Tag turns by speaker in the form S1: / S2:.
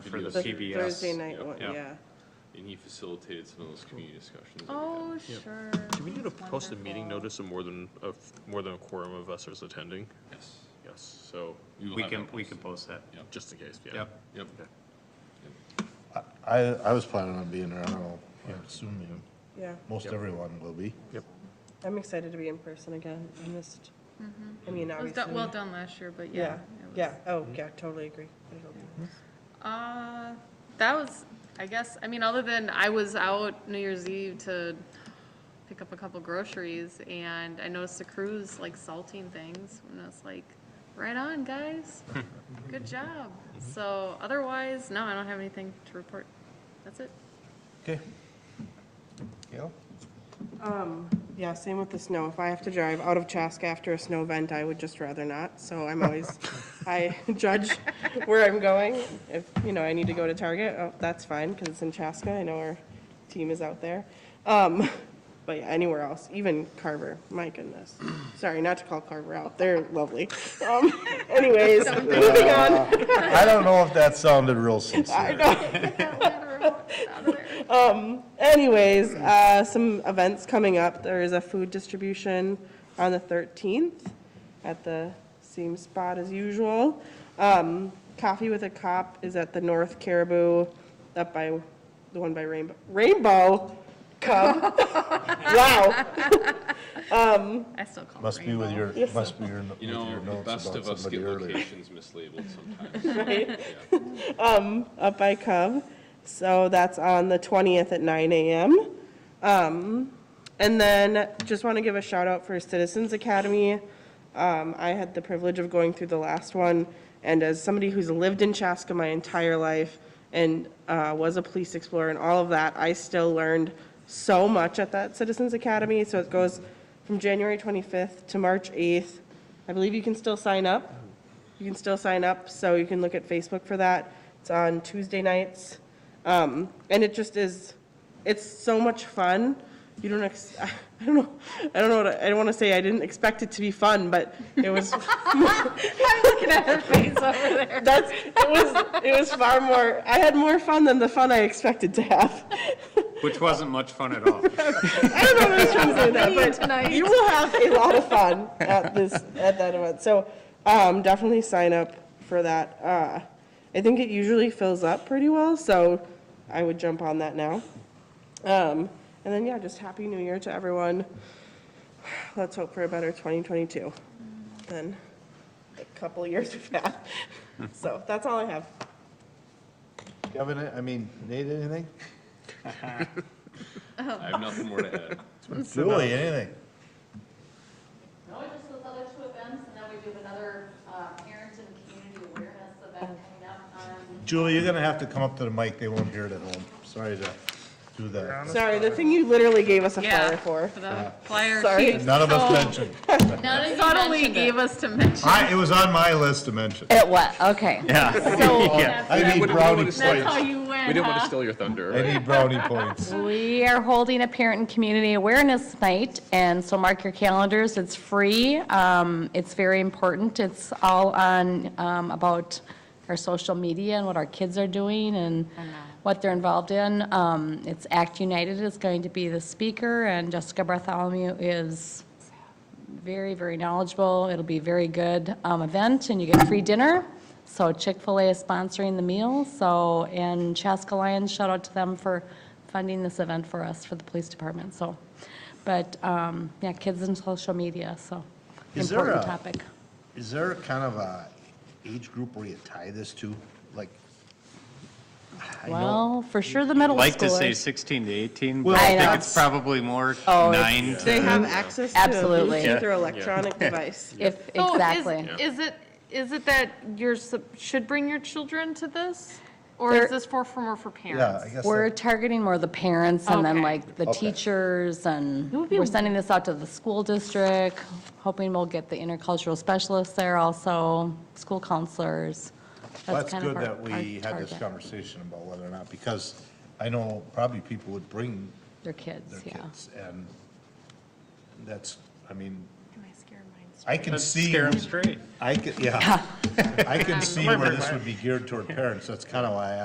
S1: for the
S2: The
S1: PBS.
S2: Thursday night
S1: Yep.
S2: one,
S1: Yep.
S2: yeah.
S1: And he facilitated some of those community discussions. that we had.
S3: Oh,
S4: Yep.
S3: sure.
S4: Do we need to
S3: That's
S4: post a meeting
S3: wonderful.
S4: notice of more than, of more than a quorum of us is attending?
S1: Yes.
S4: Yes, so,
S1: will
S5: We
S1: have
S5: can,
S1: that
S5: we can
S1: posted.
S5: post that.
S4: just in case, yeah.
S5: Yep.
S1: Yep.
S4: Okay.
S6: I, I was planning on being there, I don't know, I assume you,
S2: Yeah,
S6: most everyone will be.
S2: I'm excited to be in person again. I missed, I mean,
S3: Mm-hmm. It was done,
S2: obviously.
S3: well done last year, but yeah.
S2: Yeah,
S3: it was-
S2: yeah, oh, yeah, totally agree. It'll be-
S3: Uh, that was, I guess, I mean, other than I was out New Year's Eve to pick up a couple groceries and I noticed the crews like salting things and I was like, right on, guys. Good job. So otherwise, no, I don't have anything to report. That's it.
S6: Okay. Gail?
S2: Yeah, same with the snow. If I have to drive out of Chaska after a snow event, I would just rather not. So I'm always, I judge where I'm going. If, you know, I need to go to Target, oh, that's fine, because it's in Chaska. I know our team is out there. Um, but yeah, anywhere else, even Carver, my goodness. Sorry, not to call Carver out. They're lovely. Um, anyways, moving on.
S6: I don't know if that sounded real
S2: I
S6: sincere.
S2: know.
S3: Get that ladder out of there.
S2: Anyways, uh, some events coming up. There is a food distribution on the 13th at the same spot as usual. Um, Coffee with a Cop is at the North Caribou, up by, the one by Rainbow, Rainbow Cub. Wow.
S3: I still call it
S6: Must be with
S3: rainbow.
S6: your, must be your, with
S1: You
S6: your
S1: know, the
S6: notes
S1: best of
S6: about
S1: us
S6: somebody
S1: get
S6: earlier.
S1: locations mislabeled sometimes. Yeah.
S2: up by Cub. So that's on the 20th at 9 a.m. Um, and then just want to give a shout out for Citizens Academy. Um, I had the privilege of going through the last one, and as somebody who's lived in Chaska my entire life and uh, was a police explorer and all of that, I still learned so much at that Citizens Academy. So it goes from January 25th to March 8th. I believe you can still sign up. You can still sign up, so you can look at Facebook for that. It's on Tuesday nights. Um, and it just is, it's so much fun. You don't, ex- I don't know, I don't know, what I I don't want to say I didn't expect it to be fun, but it was.
S3: I'm looking at her face over there.
S2: That's, it was, it was far more, I had more fun than the fun I expected to have.
S5: Which wasn't much fun at all.
S2: I don't know what I was trying to say with that, but
S3: Tonight.
S2: you will have a lot of fun at this, at that event. So, um, definitely sign up for that. Uh, I think it usually fills up pretty well, so I would jump on that now. Um, and then, yeah, just Happy New Year to everyone. Let's hope for a better 2022 than the couple years we've had. So that's all I have.
S6: Kevin, I mean, Nate, anything?
S1: I have nothing more to add.
S6: Julie, anything?
S7: No, just those other two events, and then we do another uh, parent and community awareness event coming up um, on
S6: Julie, you're gonna have to come up to the mic, they won't hear it at home. Sorry to do that.
S2: Sorry, the thing you literally gave us a flyer
S3: Yeah,
S2: for.
S3: for the flyer.
S2: Sorry.
S3: she
S6: None of us
S3: so
S6: mentioned.
S7: None of you
S3: Subtly
S7: mentioned
S3: gave
S7: it.
S3: us to mention.
S6: I, it was on my list to mention.
S8: It was, okay.
S6: Yeah. I need brownie
S3: That's how
S6: points.
S3: you win,
S1: We didn't want
S3: huh?
S1: to steal your thunder.
S6: I need brownie points.
S8: We are holding a parent and community awareness night, and so mark your calendars, it's free, um, it's very important, it's all on, um, about our social media and what our kids are doing and what they're involved in. Um, it's Act United is going to be the speaker, and Jessica Bartholomew is very, very knowledgeable. It'll be a very good um, event, and you get free dinner. So Chick-fil-A is sponsoring the meal, so, and Chaska Lions, shout out to them for funding this event for us, for the police department, so. But, um, yeah, kids and social media, so,
S6: Is there
S8: important
S6: a-
S8: topic.
S6: Is there kind of a age group where you tie this to? Like, I know,
S8: Well, for sure the middle schoolers.
S5: Like to say 16 to 18, but
S6: Well,
S8: I
S5: I
S8: know.
S5: think it's probably more
S8: Oh, it's-
S5: nine
S2: They
S5: to,
S2: have access to a
S8: Absolutely.
S2: Bluetooth or electronic device.
S8: If,
S3: So is-
S8: exactly.
S3: Is it, is it that you're, sup- should bring your children to this? Or is
S8: There-
S3: this for, for more for
S6: yeah, I
S3: parents?
S6: guess.
S8: We're targeting more the parents and then
S3: Okay.
S8: like the
S6: Okay.
S8: teachers and
S3: would be
S8: we're sending this out to the school district, hoping we'll get the intercultural specialists there also, school counselors.
S6: Well, That's
S8: kind of
S6: good
S8: our-
S6: that
S8: our
S6: we had this
S8: target.
S6: conversation about whether or not, because I know probably people would bring their
S8: Their kids, yeah.
S6: kids, and that's, I mean,
S3: Am I scaring mine?
S6: I can
S5: Let's
S6: see,
S5: scare them straight.
S6: I can, yeah. I can see where this would be geared toward parents, that's kind of why I